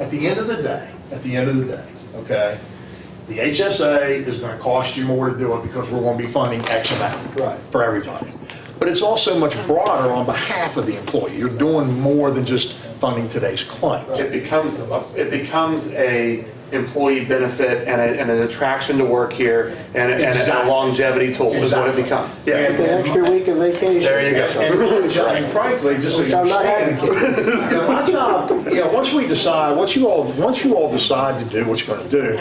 At the end of the day, at the end of the day, okay, the HSA is gonna cost you more to do it because we're gonna be funding X amount. Right. For everybody. But it's also much broader on behalf of the employee. You're doing more than just funding today's claim. It becomes, it becomes a employee benefit and a, and an attraction to work here and a, and a longevity tool is what it becomes. It's Yeah, an extra week of vacation. there you go. And and frankly, just so Which you I'm not understand, you advocating. know, my job, you know, once we decide, once you all, once you all decide to do what you're gonna do,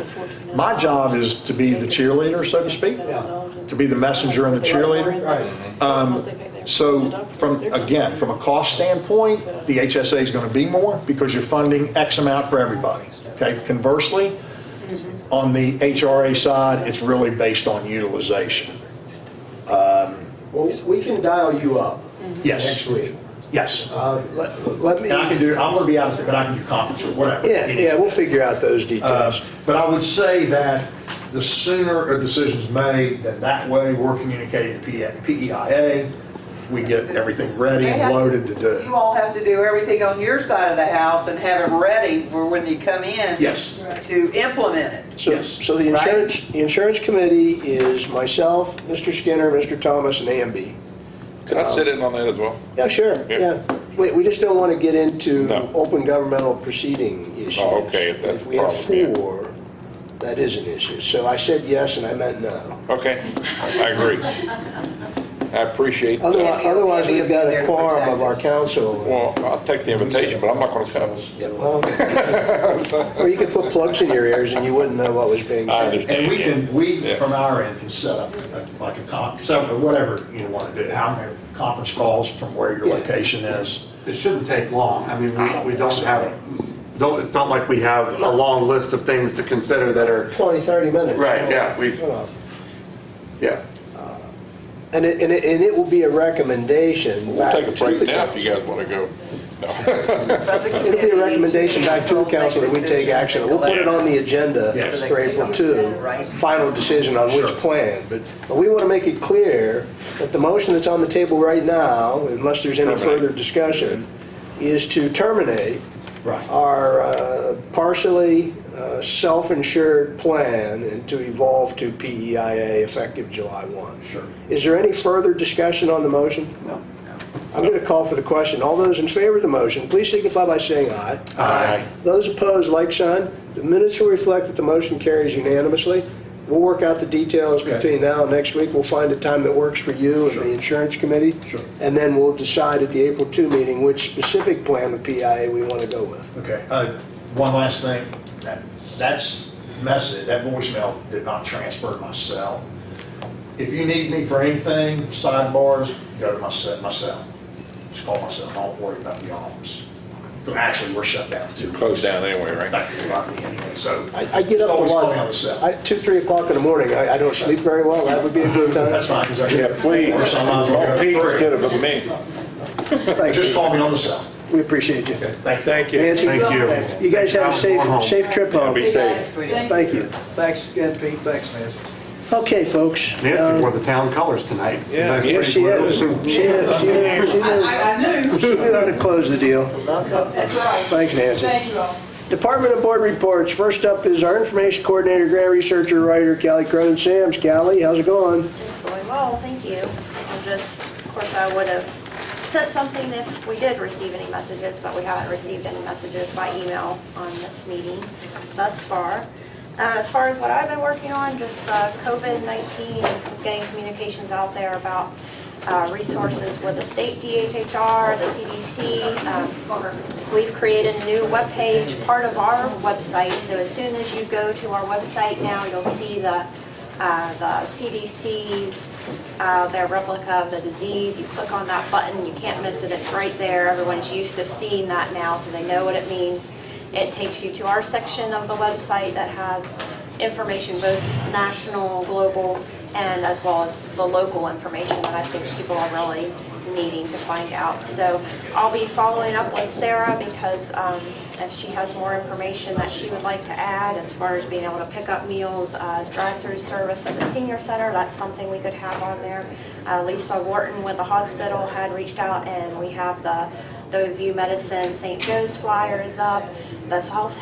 my job is to be the cheerleader, so to speak, to be the messenger and the cheerleader. Right. Um, So from, again, from a cost standpoint, the HSA is going to be more because you're funding X amount for everybody. Okay, conversely, on the HRA side, it's really based on utilization. Well, we can dial you up. Yes. Next week. Yes. Uh, Let let me. And I can do, I'm going to be out, but I can do conference or whatever. Yeah, yeah, we'll figure out those Uh, details. But I would say that the sooner a decision's made, then that way we're communicating to PEIA, we get everything ready They and have- loaded to do. You all have to do everything on your side of the house and have it ready for when you come in. Yes. To implement it. So, yes. so the Right. insurance, the insurance committee is myself, Mr. Skinner, Mr. Thomas, and AMB. Can I sit in on that as well? Yeah, Oh, sure, Yeah. yeah. We, we just don't want to get into No. open governmental proceeding issues. Oh, okay, if that's If we have the problem, yeah. four, that is an issue. So I said yes and I meant no. Okay, I agree. I appreciate that. Otherwise, Yeah, otherwise yeah, we've got they're a quorum of our protected. council. Well, I'll take the invitation, but I'm not going to come. Well, Or you could put plugs in your ears and you wouldn't know what was being I said. understand. And we can, we, Yeah. from our end, can set up a- like a con, set up whatever you want to do, how many conference calls from where your Yeah. location is. It shouldn't take long. I mean, we, we don't have, don't, it's not like we have a long list of things to consider that are, 20, 30 minutes. Right, yeah, we- You know. yeah. And it, and it, and it will be a recommendation We'll back take to a the break now if council. you guys want to go. It'll be a recommendation back to the council that we take action. We'll put it on the agenda Yes. for April 2, final decision on which Sure. plan. But but we want to make it clear that the motion that's on the table right now, unless there's any Terminate. further discussion, is to terminate Right. our uh, partially uh, self-insured plan and to evolve to PEIA effective July 1. Sure. Is there any further discussion on the motion? No. I'm going to call for the question. All those in favor of the motion, please signify by saying aye. Aye. Those opposed, like sign. The minutes will reflect that the motion carries unanimously. We'll work out the details Okay. between now and next week. We'll find a time that works for you and the insurance committee. Sure. And then we'll decide at the April 2 meeting which specific plan with PIA we want to go with. Okay, uh, one last thing, that, that's message, that voicemail did not transfer to my cell. If you need me for anything, sidebars, go to my cell, my cell. Just call my cell, don't worry about the office. Actually, we're shut down too. Close down anyway, right? Back to the lobby anyway, so. I I get up a Always lot. call me on the cell. I- Two, three o'clock in the morning. I I don't sleep very well. That would be a good time. That's fine, because I get. Or sometimes I'll Don't go Pete, to three. get it with me. Thank Just you. call me on the cell. We appreciate you. Thank you. Nancy, Thank you. You guys have a Going home. safe, safe trip home. Be safe. Thank you. Thanks again, Pete. Thanks, Nancy. Okay, folks. Nancy Um, wore the town colors tonight. Yeah. Yes, she is. She is. She is. She is. I, I knew. She knew how to close the deal. That's right. Thanks, Nancy. Thank you all. Department and board reports. First up is our information coordinator, grant researcher, writer, Callie Cronin Sam's. Callie, how's it going? Going well, thank you. I'm just, of course, I would have said something if we did receive any messages, but we haven't received any messages by email on this meeting thus far. Uh, As far as what I've been working on, just uh, COVID-19, and getting communications out there about uh, resources with the state DHHR, the CDC. um, We've created a new webpage, part of our website, so as soon as you go to our website now, you'll see the uh, the CDC's, uh, their replica of the disease. You click on that button, you can't miss it, it's right there. Everyone's used to seeing that now, so they know what it means. It takes you to our section of the website that has information, both national, global, and as well as the local information that I think people are really needing to find out. So I'll be following up with Sarah because um, if she has more information that she would like to add as far as being able to pick up meals, uh, drive-through service at the senior center, that's something we could have on there. Uh, Lisa Wharton with the hospital had reached out and we have the View Medicine St. Joe's flyers up. The health